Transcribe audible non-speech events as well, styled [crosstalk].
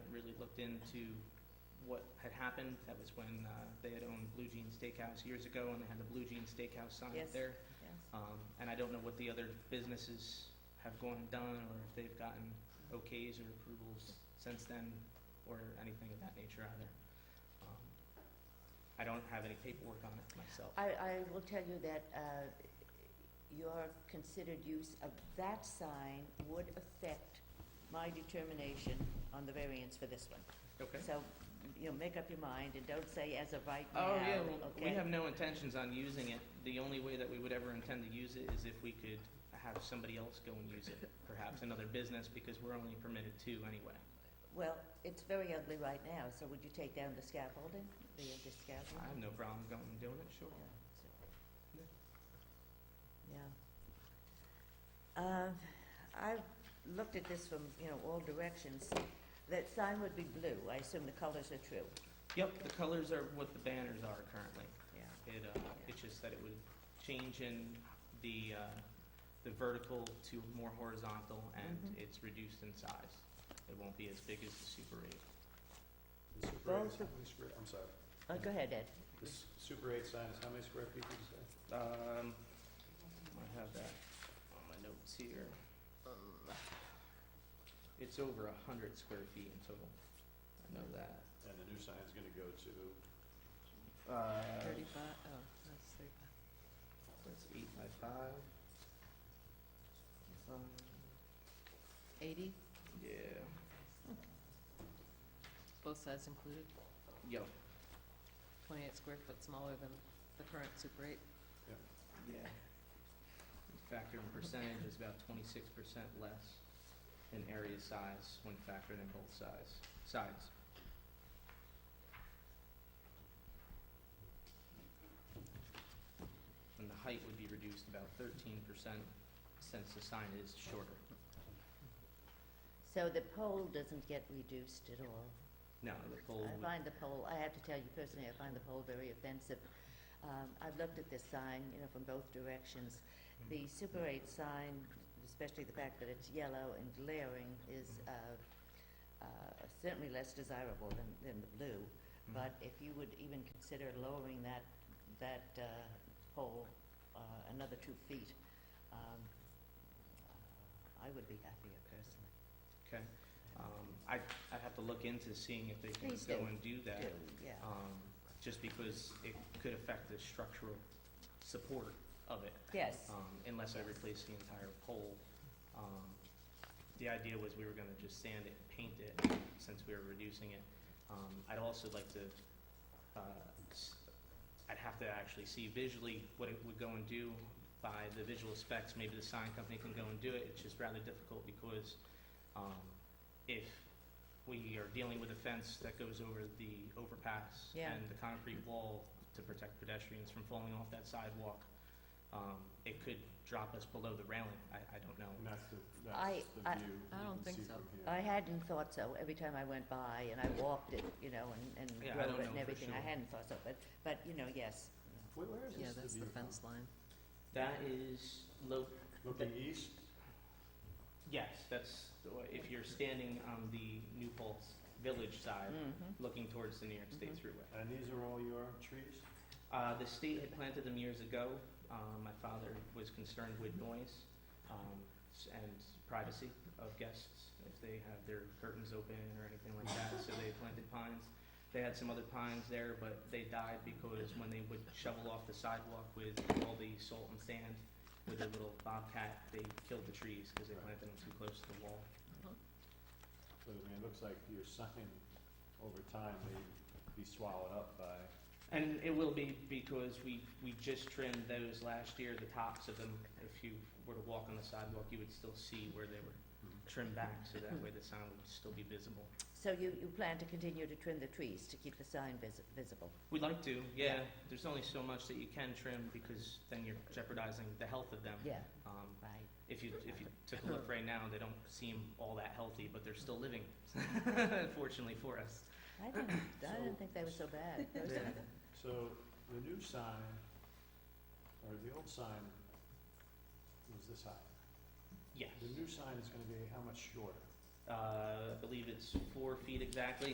looked into what had happened. That was when uh, they had owned Blue Jean Steakhouse years ago, and they had the Blue Jean Steakhouse sign Yes. up there. Yes. Um, And I don't know what the other businesses have gone and done, or if they've gotten okays or approvals since then, or anything of that nature either. Um, I don't have any paperwork on it myself. I, I will tell you that uh, your considered use of that sign would affect my determination on the variance for this one. Okay? So, you know, make up your mind and don't say as of right now, Oh, okay? yeah, well, we have no intentions on using it. The only way that we would ever intend to use it is if we could have somebody else go and use it, perhaps another business, because we're only permitted two anyway. Well, it's very ugly right now, so would you take down the scaffolding, the I the have scaffolding? no problem going and doing it, sure. Yeah, so- Yeah. Yeah. Um, I've looked at this from, you know, all directions. That sign would be blue, I assume the colors are true, Yep, the colors are what the banners are currently. yeah. It, uh, it's just that it would change in the, uh, the vertical to more horizontal, and Mhm. it's reduced in size. It won't be as big as the Super Eight. The Super Both eight, how many square, I'm sorry, Oh, go ahead, Ed. the s- Super eight sign is how many square feet did you say? Um, I have that on my notes here. Um, It's over a hundred square feet in total, I know that. And the new sign's gonna go to, Uh, Thirty-five, oh, that's thirty-five. that's eight by five. Um, Eighty, Yeah, both sides included, yep, twenty-eight square foot smaller than the current Super Eight. yeah. Factor in percentage is about twenty-six percent less in area size when factored in both size, sides. And the height would be reduced about thirteen percent since the sign is shorter. So the pole doesn't get reduced at all. No, the pole I would, find the poll, I have to tell you personally, I find the poll very offensive. Um, I've looked at this sign, you know, from both directions. The Super 8 sign, especially the fact that it's yellow and glaring, is uh, uh, certainly less desirable than, than the blue. Mhm. But if you would even consider lowering that, that uh, pole uh, another two feet, um, uh, I would be happier personally. okay. Um, I, I'd have to look into seeing if they can Please go do. and do that. Do, Yeah. Um, just because it could affect the structural support of it. Yes, um, unless I replace the entire pole. Um, The idea was we were gonna just sand it and paint it, since we were reducing it. Um, I'd also like to, uh, s- I'd have to actually see visually what it would go and do by the visual specs, maybe the sign company can go and do it, it's just rather difficult because, um, if we are dealing with a fence that goes over the overpass Yeah. and the concrete wall to protect pedestrians from falling off that sidewalk, um, it could drop us below the railing, I, I don't know. and that's the, I- that's the I- view I you don't can think see so. from here. I hadn't thought so, every time I went by and I walked it, you know, and, Yeah, I and drove don't it know and for everything, I sure. hadn't thought so, but, but, you know, yes. Where, where is Yeah, this the that's view the from? fence line. That is low, Looking east, yes, that's, the way- if you're standing on the New Paltz Village side, Mhm. looking towards the New York State Mhm. Thruway. and these are all your trees? Uh, the state had planted them years ago, um, my father was concerned with noise, um, s- and privacy of guests, if they have their curtains open or anything like that, so they planted pines. They had some other pines there, but they died because when they would shovel off the sidewalk with all the salt and sand with their little bobcat, they killed the trees because they planted them too close to the wall. So, I mean, it looks like your sign over time may be swallowed up by, And it will be because we, we just trimmed those last year, the tops of them. If you were to walk on the sidewalk, you would still see where they were trimmed back, so that way the sign would still be visible. So you, you plan to continue to trim the trees to keep the sign visi- visible? We'd like to, yeah. Yeah. There's only so much that you can trim because then you're jeopardizing the health of them. Yeah, Um, right. if you, if you took a look right now, they don't seem all that healthy, but they're still living, [laughs] fortunately for us. I didn't, I So- didn't think they were so bad. Yeah. so the new sign, or the old sign was this high. Yes. The new sign is gonna be how much shorter? Uh, I believe it's four feet exactly,